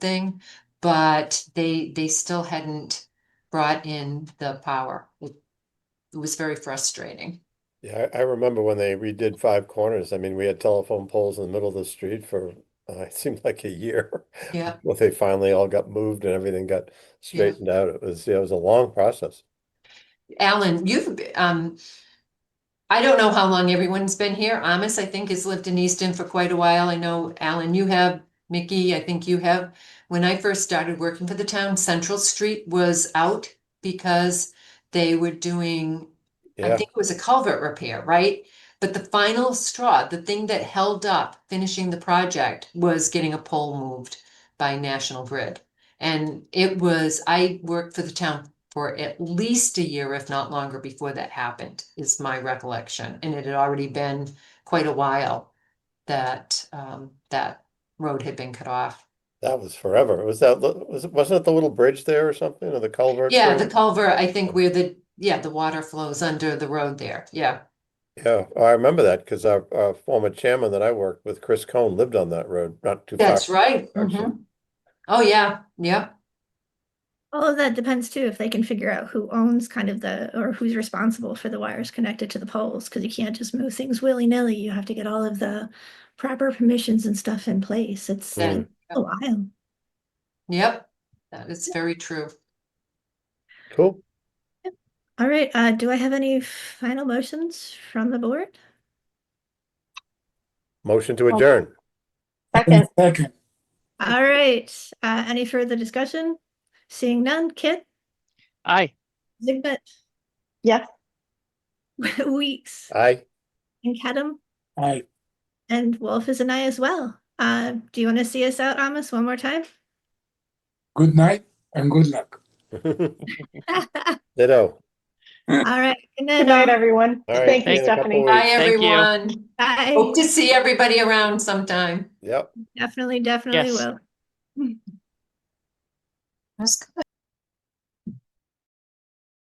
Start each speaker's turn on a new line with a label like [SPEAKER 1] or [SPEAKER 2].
[SPEAKER 1] thing, but they, they still hadn't brought in the power. It it was very frustrating.
[SPEAKER 2] Yeah, I I remember when they redid Five Corners. I mean, we had telephone poles in the middle of the street for, uh, it seemed like a year.
[SPEAKER 1] Yeah.
[SPEAKER 2] Well, they finally all got moved and everything got straightened out. It was, yeah, it was a long process.
[SPEAKER 1] Alan, you've, be- um, I don't know how long everyone's been here. Amos, I think, has lived in Easton for quite a while. I know, Alan, you have, Mickey, I think you have. When I first started working for the town, Central Street was out because they were doing I
[SPEAKER 2] Yeah,
[SPEAKER 1] think it was a culvert repair, right? But the final straw, the thing that held up finishing the project was getting a pole moved by National Grid. And it was, I worked for the town for at least a year, if not longer, before that happened, is my recollection. And it had already been quite a while that, um, that road had been cut off.
[SPEAKER 2] that was forever. Was that, li- was, it- wasn't it the little bridge there or something or the culvert?
[SPEAKER 1] Yeah, the
[SPEAKER 2] thing?
[SPEAKER 1] culvert, I think where the, yeah, the water flows under the road there. Yeah.
[SPEAKER 2] Yeah, I remember that because our, our former chairman that I worked with, Chris Cohn, lived on that road, not too far.
[SPEAKER 1] That's right.
[SPEAKER 2] actually.
[SPEAKER 1] Mhm. Oh, yeah, yeah.
[SPEAKER 3] All of that depends too, if they can figure out who owns kind of the, or who's responsible for the wires connected to the poles, because you can't just move things willy-nilly. You have to get all of the proper permissions and stuff in place. It's
[SPEAKER 2] Mm.
[SPEAKER 3] it's a while.
[SPEAKER 1] Yep, that is very true.
[SPEAKER 2] Cool.
[SPEAKER 3] All right, uh, do I have any final motions from the board?
[SPEAKER 2] Motion to adjourn.
[SPEAKER 4] Second,
[SPEAKER 5] Second,
[SPEAKER 3] All right, uh, any further discussion? Seeing none, Kit,
[SPEAKER 6] Aye.
[SPEAKER 3] Zigbit,
[SPEAKER 4] yes.
[SPEAKER 3] Weeks,
[SPEAKER 2] Aye.
[SPEAKER 3] and Kadam,
[SPEAKER 5] aye.
[SPEAKER 3] and Wolf is an I as well. Uh, do you want to see us out, Amos, one more time?
[SPEAKER 5] Good night and good luck.
[SPEAKER 2] Ditto.
[SPEAKER 3] All right. Good
[SPEAKER 4] Good
[SPEAKER 3] all.
[SPEAKER 4] night, everyone.
[SPEAKER 2] All right,
[SPEAKER 4] Thank
[SPEAKER 2] see
[SPEAKER 4] you,
[SPEAKER 2] in a couple
[SPEAKER 4] Stephanie.
[SPEAKER 2] weeks.
[SPEAKER 1] Bye,
[SPEAKER 6] Thank you.
[SPEAKER 1] everyone.
[SPEAKER 3] Bye.
[SPEAKER 1] Hope to see everybody around sometime.
[SPEAKER 2] Yep.
[SPEAKER 3] Definitely, definitely
[SPEAKER 6] Yes.
[SPEAKER 3] will.
[SPEAKER 1] That's good.